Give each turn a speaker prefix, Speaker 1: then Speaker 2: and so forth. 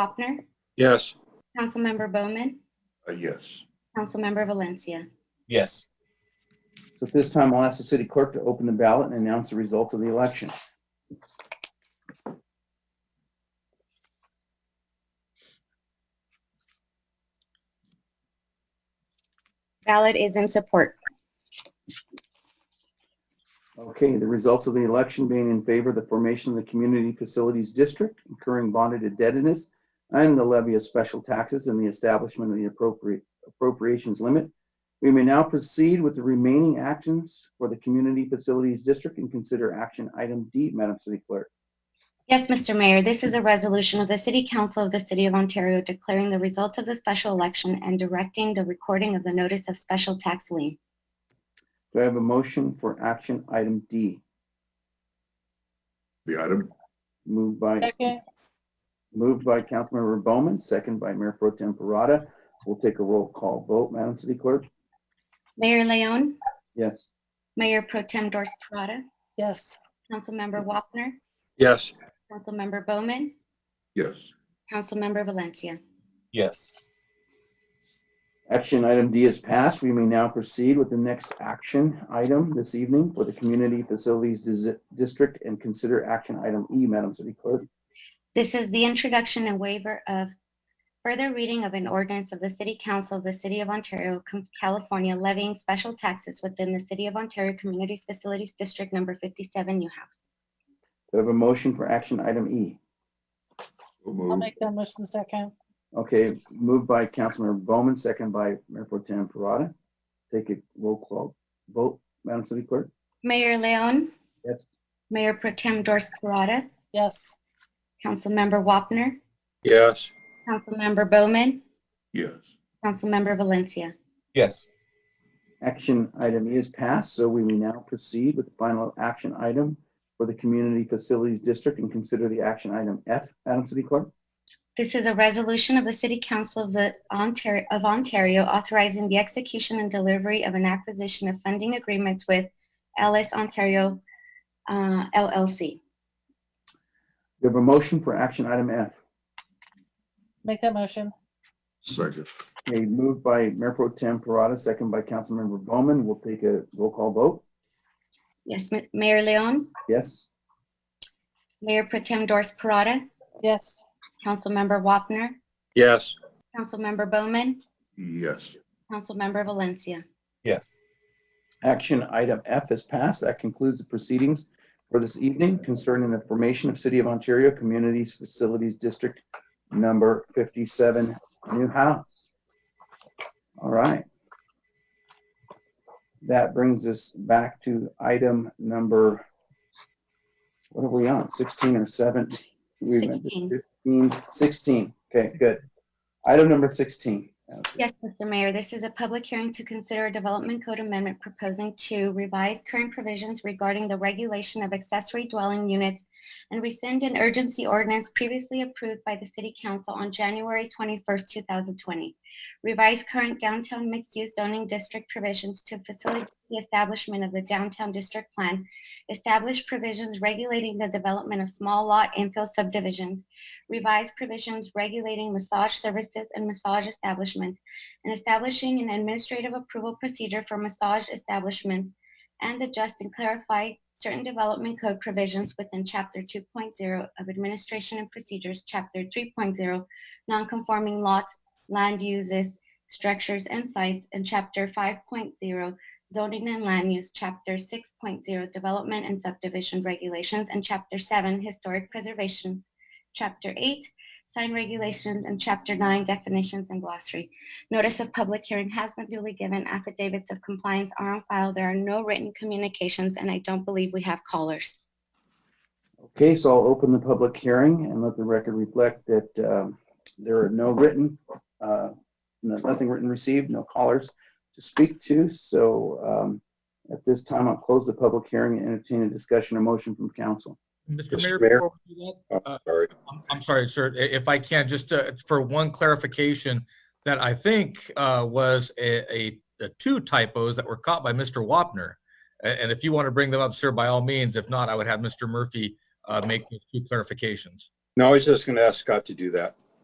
Speaker 1: Wapner,
Speaker 2: Yes.
Speaker 1: Councilmember Bowman,
Speaker 3: Uh, yes.
Speaker 1: Councilmember Valencia.
Speaker 4: Yes.
Speaker 5: So at this time, I'll ask the city clerk to open the ballot and announce the results of the election.
Speaker 1: Ballot is in support.
Speaker 5: Okay, the results of the election being in favor of the formation of the Community Facilities District, incurring bonded indebtedness, and the levy of special taxes and the establishment of the appropriate appropriations limit. We may now proceed with the remaining actions for the Community Facilities District and consider action item D, Madam City Clerk.
Speaker 1: Yes, Mr. Mayor, this is a resolution of the City Council of the City of Ontario declaring the results of the special election and directing the recording of the notice of special tax lien.
Speaker 5: Do I have a motion for action item D?
Speaker 3: The item,
Speaker 5: Moved by, moved by Councilmember Bowman, second by Mayor Pro Tem Parada. We'll take a roll call vote, Madam City Clerk.
Speaker 1: Mayor Leon,
Speaker 5: Yes.
Speaker 1: Mayor Pro Tem Dorsey Parada,
Speaker 6: Yes.
Speaker 1: Councilmember Wapner,
Speaker 2: Yes.
Speaker 1: Councilmember Bowman,
Speaker 3: yes.
Speaker 1: Councilmember Valencia.
Speaker 4: Yes.
Speaker 5: Action item D is passed. We may now proceed with the next action item this evening for the Community Facilities Dis- District and consider action item E, Madam City Clerk.
Speaker 1: This is the introduction and waiver of further reading of an ordinance of the City Council of the City of Ontario, Com- California levying special taxes within the City of Ontario Communities Facilities District Number 57, New House.
Speaker 5: Do I have a motion for action item E?
Speaker 3: So
Speaker 6: I'll
Speaker 3: moved.
Speaker 6: make that motion second.
Speaker 5: Okay, moved by Councilmember Bowman, second by Mayor Pro Tem Parada. Take a roll call vote, Madam City Clerk.
Speaker 1: Mayor Leon,
Speaker 5: Yes.
Speaker 1: Mayor Pro Tem Dorsey Parada,
Speaker 6: Yes.
Speaker 1: Councilmember Wapner,
Speaker 2: Yes.
Speaker 1: Councilmember Bowman,
Speaker 3: Yes.
Speaker 1: Councilmember Valencia.
Speaker 4: Yes.
Speaker 5: Action item E is passed, so we may now proceed with the final action item for the Community Facilities District and consider the action item F, Madam City Clerk.
Speaker 1: This is a resolution of the City Council of the Ontario, of Ontario authorizing the execution and delivery of an acquisition of funding agreements with Ellis Ontario uh, LLC.
Speaker 5: We have a motion for action item F.
Speaker 6: Make that motion.
Speaker 3: Second,
Speaker 5: A move by Mayor Pro Tem Parada, second by Councilmember Bowman. We'll take a roll call vote.
Speaker 1: Yes, Ma- Mayor Leon,
Speaker 5: Yes?
Speaker 1: Mayor Pro Tem Dorsey Parada,
Speaker 6: Yes.
Speaker 1: Councilmember Wapner,
Speaker 2: Yes.
Speaker 1: Councilmember Bowman,
Speaker 3: yes.
Speaker 1: Councilmember Valencia.
Speaker 4: Yes.
Speaker 5: Action item F is passed. That concludes the proceedings for this evening concerning the formation of City of Ontario Communities Facilities District Number 57, New House. All right. That brings us back to item number, what are we on, 16 or 17? We've been-
Speaker 1: 16.
Speaker 5: 15, 16. Okay, good. Item number 16.
Speaker 1: Yes, Mr. Mayor, this is a public hearing to consider a development code amendment proposing to revise current provisions regarding the regulation of accessory dwelling units and rescind an urgency ordinance previously approved by the City Council on January 21st, 2020. Revise current downtown mixed-use zoning district provisions to facilitate the establishment of the downtown district plan. Establish provisions regulating the development of small lot infill subdivisions. Revise provisions regulating massage services and massage establishments and establishing an administrative approval procedure for massage establishments and adjust and clarify certain development code provisions within Chapter 2.0 of Administration and Procedures, Chapter 3.0, Nonconforming Lots, Land Uses, Structures and Sites, and Chapter 5.0, Zoning and Land Use, Chapter 6.0, Development and Subdivision Regulations, and Chapter 7, Historic Preservation, Chapter 8, Sign Regulations, and Chapter 9, Definitions and Glossary. Notice of public hearing has been duly given. Affidavits of compliance are on file. There are no written communications, and I don't believe we have callers.
Speaker 5: Okay, so I'll open the public hearing and let the record reflect that um, there are no written, uh, no- nothing written received, no callers to speak to. So um, at this time, I'll close the public hearing and entertain a discussion or motion from council.
Speaker 2: Mr.
Speaker 7: Mr. Mayor,
Speaker 2: Mayor?
Speaker 7: before we do that,
Speaker 2: Oh, Sorry.
Speaker 7: I'm- I'm sorry, sir, i- if I can, just uh, for one clarification that I think uh, was a, a, the two typos that were caught by Mr. Wapner. A- And if you want to bring them up, sir, by all means, if not, I would have Mr. Murphy uh, make those two clarifications.
Speaker 2: No, I was just going to ask Scott to do that.